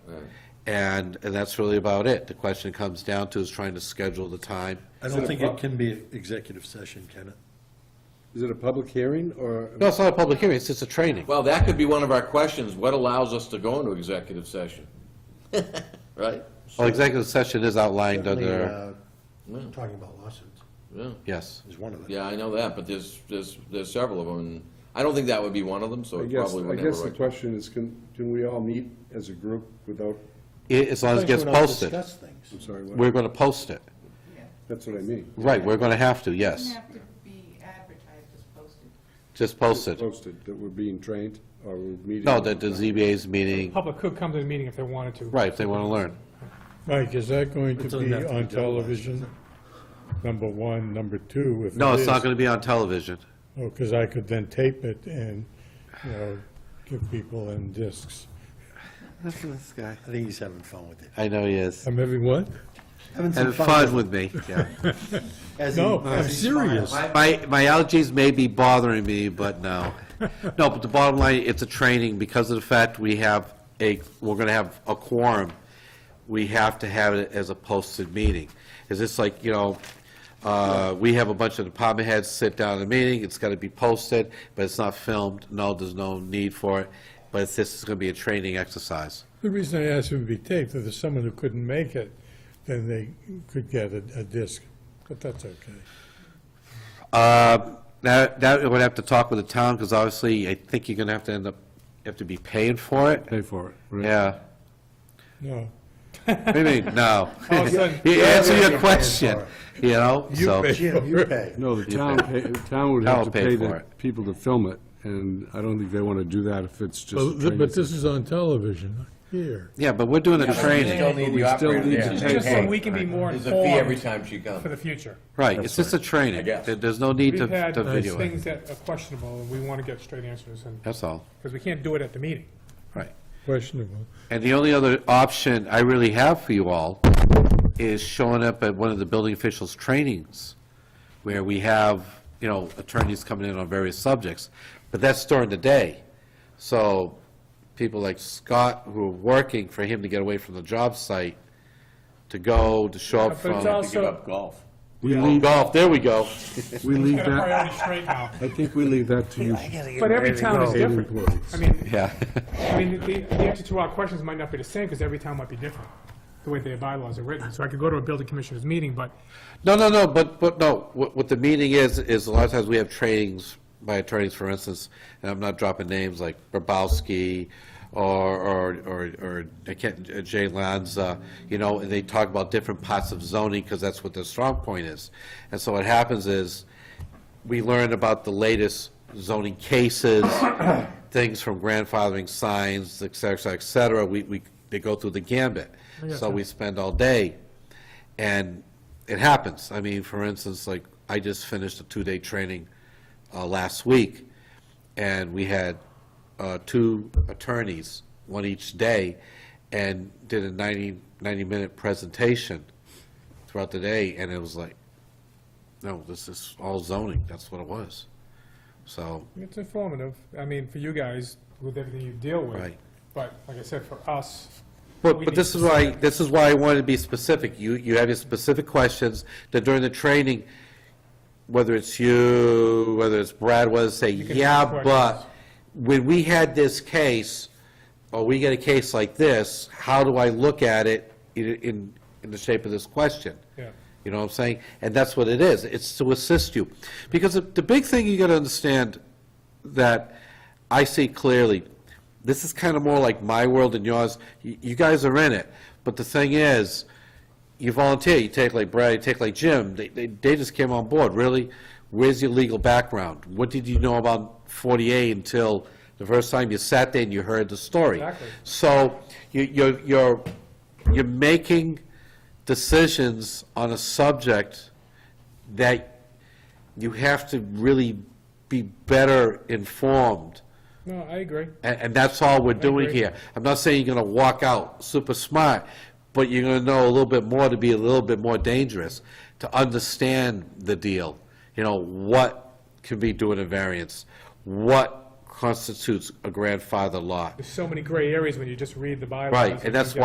And, and that's really about it. The question comes down to is trying to schedule the time. I Is it don't a think pub- it can be executive session, can it? Is it a public hearing or? No, it's not a public hearing, it's just a training. Well, that could be one of our questions, what allows us to go into executive session? Right? Well, executive session is outlined under, Yeah. uh, Talking about lawsuits Yeah. yes. is one of them. Yeah, I know that, but there's, there's, there's several of them, and I don't think that would be one of them, so I it guess, probably I would guess never. the right. question is, can, can we all meet as a group without, I- As long as it gets We're not posted. discuss things. I'm sorry, what? We're going to post it. That's what I mean, Right, we're going to have to, Doesn't yes. have to be advertised as posted. Just post it. posted, that we're being trained or we're meeting. No, that the ZBA's meeting, Public could come to the meeting if they wanted to. right, if they want to learn. Mike, is that going It to doesn't be have to be on televised. television? Number one, number two, if No, it it's is- not going to be on television. Oh, because I could then tape it and, you know, give people in discs. This guy. I think he's having fun with it. I know he is. I'm having what? Having some Having fun. fun with me, yeah. as he- No, uh, as I'm he smiles. serious. My, my allergies may be bothering me, but no. No, but the bottom line, it's a training, because of the fact we have a, we're gonna have a quorum, we have to have it as a posted meeting. Is this like, you know, uh, we have a bunch of department heads sit down at a meeting, it's gotta be posted, but it's not filmed, no, there's no need for it, but it's, this is gonna be a training exercise. The reason I asked if it'd be taped, if there's someone who couldn't make it, then they could get a, a disc, but that's okay. Uh, That, that, would have to talk with the town, because obviously, I think you're gonna have to end up, have to be paying for it. Pay for it. Yeah. No, What do you mean, no? All of a sudden- You answer your question, you know, so, Jim, you pay. No, the town, pay- the town would have Town to will pay pay for the it. people to film it, and I don't think they want to do that if it's just. a but training but this is on television, here. yeah, but we're doing a training, need We still need to It's pay Just for so it. we can be more There's a fee every informed time she for comes. the future. right, it's just a I training, guess. There- there's no need We've to had to video it, things that are questionable, and we want to get straight answers, and, that's all, because we can't do it at the meeting. right. Questionable. And the only other option I really have for you all is showing up at one of the building officials' trainings, where we have, you know, attorneys coming in on various subjects, but that's during the day. So people like Scott, who are working for him to get away from the job site, to go, to show up But it's from, Give also, up golf. We Oh, leave, golf, there we go. we leave got a Uh, that, priority straight now. I think we leave that to you. But every town is Paid different. employees. I mean, Yeah. I mean, the, the answer to our questions might not be the same, because every town might be different, the way their bylaws are written. So I could go to a building commissioner's meeting, but No, no, no, but, but no, what, what the meeting is, is a lot of times we have trainings by attorneys, for instance, and I'm not dropping names like Brabowski or, or, or, or I can't- uh, Jay Lanza, you know, and they talk about different parts of zoning because that's what their strong point is. And so what happens is, we learn about the latest zoning cases, things from grandfathering signs, et cetera, et cetera. We, we, they go through the gambit. So we spend all day, and it happens. I mean, for instance, like, I just finished a two-day training uh, last week, and we had uh, two attorneys, one each day, and did a 90, 90-minute presentation throughout the day, and it was like, no, this is all zoning, that's what it was. So, it's informative. I mean, for you guys, with everything you deal with. Right. But like I said, for us. but, we but need this to is see why, it. this is why I wanted to be specific. You, you have your specific questions, that during the training, whether it's you, whether it's Brad was, say, can yeah, ask but when we had this case, or we get a case like this, how do I look at it in- in, in the shape of this question? Yeah. You know what I'm saying? And that's what it is, it's to assist you. Because the- the big thing you gotta understand that I see clearly, this is kinda more like my world and yours, you, you guys are in it, but the thing is, you volunteer, you take like Brad, you take like Jim, they, they, they just came on board, really? Where's your legal background? What did you know about 40A until the first time you sat there and you heard the story? Exactly. So you, you're, you're, you're making decisions on a subject that you have to really be better informed. No, I agree. And, and that's all we're doing agree. here. I'm not saying you're gonna walk out super smart, but you're gonna know a little bit more to be a little bit more dangerous, to understand the deal. You know, what can be doing a variance? What constitutes a grandfather lot? There's so many gray areas when you just read the bylaws. Right, you and that's get-